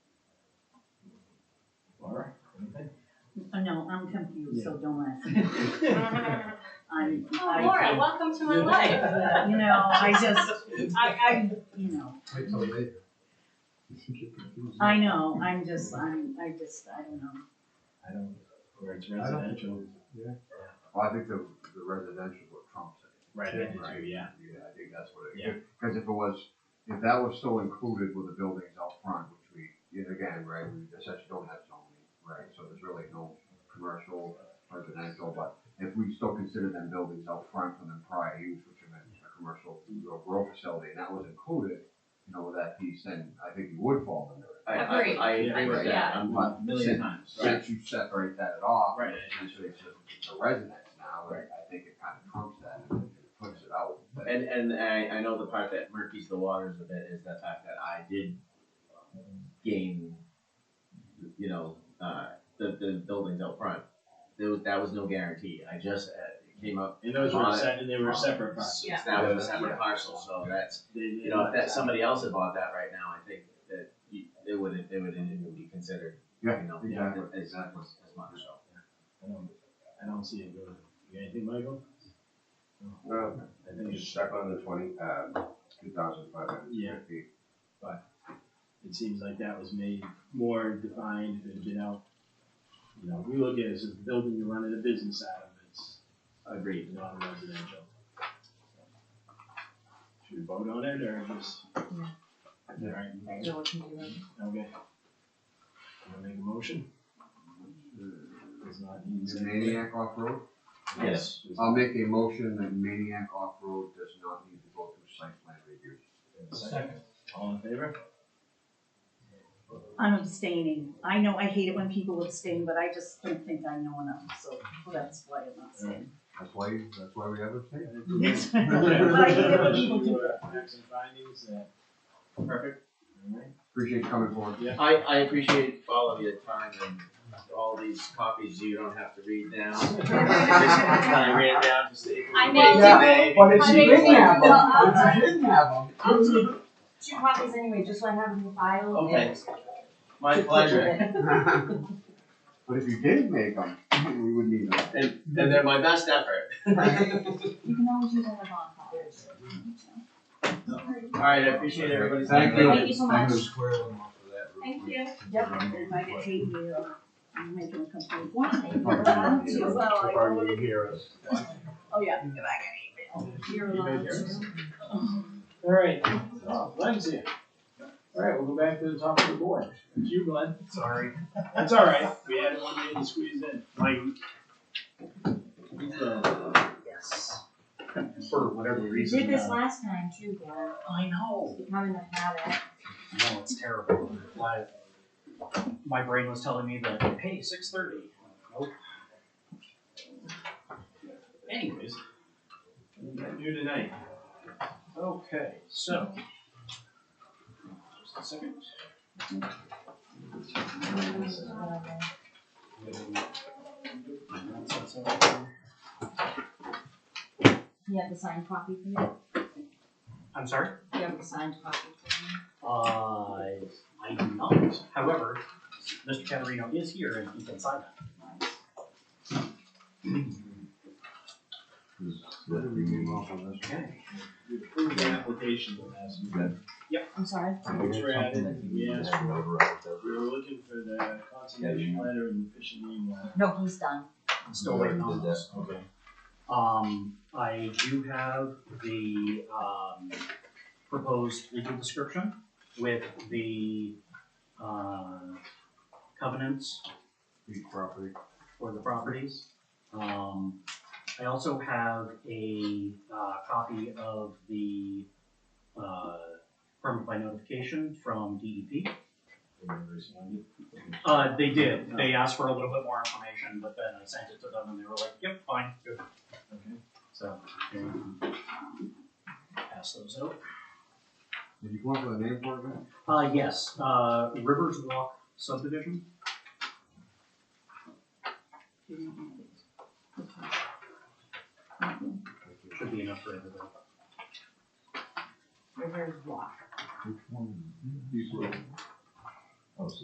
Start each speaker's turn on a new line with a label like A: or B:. A: know, Oh, I'm confused, so don't laugh.
B: Oh,
A: I'm, I,
B: Laura, welcome to my life.
A: you know, I just, I, I, you know,
C: Wait till later. You can get confused.
A: I know, I'm just, I'm, I just, I don't know.
D: I don't, where it's
C: I don't-
D: residential.
C: Yeah.
E: Well, I think the, the residential what trumps it.
D: Right, I do
E: Right.
D: too, yeah.
E: Yeah, I think that's what it
D: Yeah.
E: is. Cause if it was, if that was still included with the buildings out front, which we, yet again, right, we essentially don't have zoning, right? So there's really no commercial, residential, but if we still consider them buildings out front from their prior use, which are meant a commercial, or grow facility, and that was included, you know, with that piece, then I think you would fall under it.
F: I, I,
B: Agreed.
F: I agree with that,
B: Yeah.
F: I'm
E: But
D: A million times.
E: since you separate that at all,
D: Right.
E: essentially it's a, it's a residence now, and I think it kind of trumps that, and it puts it out. but-
F: And and I, I know the part that murkies the waters with it is the fact that I did gain, you know, uh, the the buildings out front. There was that was no guarantee. I just uh, it came up.
D: And those were
F: on-
D: set, and they were separate parts.
B: Yeah.
F: That was a
E: Yeah.
F: separate parcel, so that's
D: They-
F: you know if that somebody else had bought that right now, I think that you, it would it would it would be considered.
E: Yeah,
F: you know,
E: exactly,
F: as,
E: exactly.
F: as much. So.
D: I don't, I don't see it going. You got anything, Michael?
G: Well,
D: I
G: you're
D: think it's,
G: stuck on the twenty,
E: um,
G: uh, two thousand five hundred
D: Yeah.
G: fifty. feet.
D: it seems like that was made more defined and, you know, you know, we look at it as a building you're running a business out of, it's
F: Agreed.
D: not residential. Should we vote on it or just? Alright, okay. Wanna make a motion? Does not need
E: The
D: second.
E: Maniac Off-Road,
F: Yes.
D: Does-
E: I'll make a motion that Maniac Off-Road does not need to go through site plan review.
D: Second. All in favor?
A: I'm abstaining. I know, I hate it when people abstain, but I just don't think I know enough, so that's why I'm not saying.
E: That's why, that's why we have a state.
A: Yes.
D: But
A: I get what people do.
D: Facts and findings, uh,
F: Perfect.
D: alright.
E: Appreciate you coming forward.
F: I, I appreciate all of your time and all these copies you don't have to read down. I ran down to see.
B: I know.
F: Today.
E: but
B: if she didn't have them-
F: uh,
B: if she
E: didn't have them.
B: I'll take two copies anyway, just so I have them in file.
F: Okay. My pleasure.
E: But if you didn't make them, we would need them.
F: And, and they're my best effort.
A: You can always use all the wrong colors.
F: Mm-hmm. All right, I appreciate everybody's.
E: Thank
F: time.
E: you.
B: Thank you so
E: I'm
B: much.
E: gonna square them off of that real
B: Thank
E: quick.
B: you.
A: Yep, if I get hate you, I'm making a complaint.
E: If I can hear us.
A: Well, I
E: If I
A: would-
E: can hear us.
A: Oh, yeah, if I get hate You're allowed to.
D: Alright, oh, Glenn's here. Alright, we'll go back to the top of the board. It's you, Glenn.
E: Sorry.
D: That's alright, we had one man to squeeze in. Mike. Uh,
A: Yes.
E: For whatever
B: You did
E: reason.
B: this last time too, Glenn.
E: I know.
B: It's becoming a habit.
H: I know it's terrible. My, my brain was telling me that, hey, six thirty. Nope. Anyways,
D: we got You tonight.
H: okay, so. Just a second.
B: Whatever.
H: That's- that's all.
B: You have the signed copy for me?
H: I'm sorry?
B: You have the signed copy for me?
H: Uh, I do not. However, Mr. Caterino is here and he can sign that. Okay.
D: We approved the application last week.
B: I'm sorry.
D: Which we're at, we asked for, we were looking for the conservation letter and the fishing game letter.
B: No, he's done.
H: Still waiting on this.
D: Okay.
H: Um, I do have the, um, proposed legal description with the, uh, covenants
E: Property.
H: for the properties. Um, I also have a, uh, copy of the, uh, permit by notification from DEP.
D: Everybody responded?
H: Uh, they did, they asked for a little bit more information, but then I sent it to them and they were like, yep, fine, good.
D: Okay.
H: So, um, pass those out.
E: Did you come up with a name for it, man?
H: Uh, yes, uh, Rivers Walk subdivision. Should be enough for everybody.
A: Reverse block.
E: These were-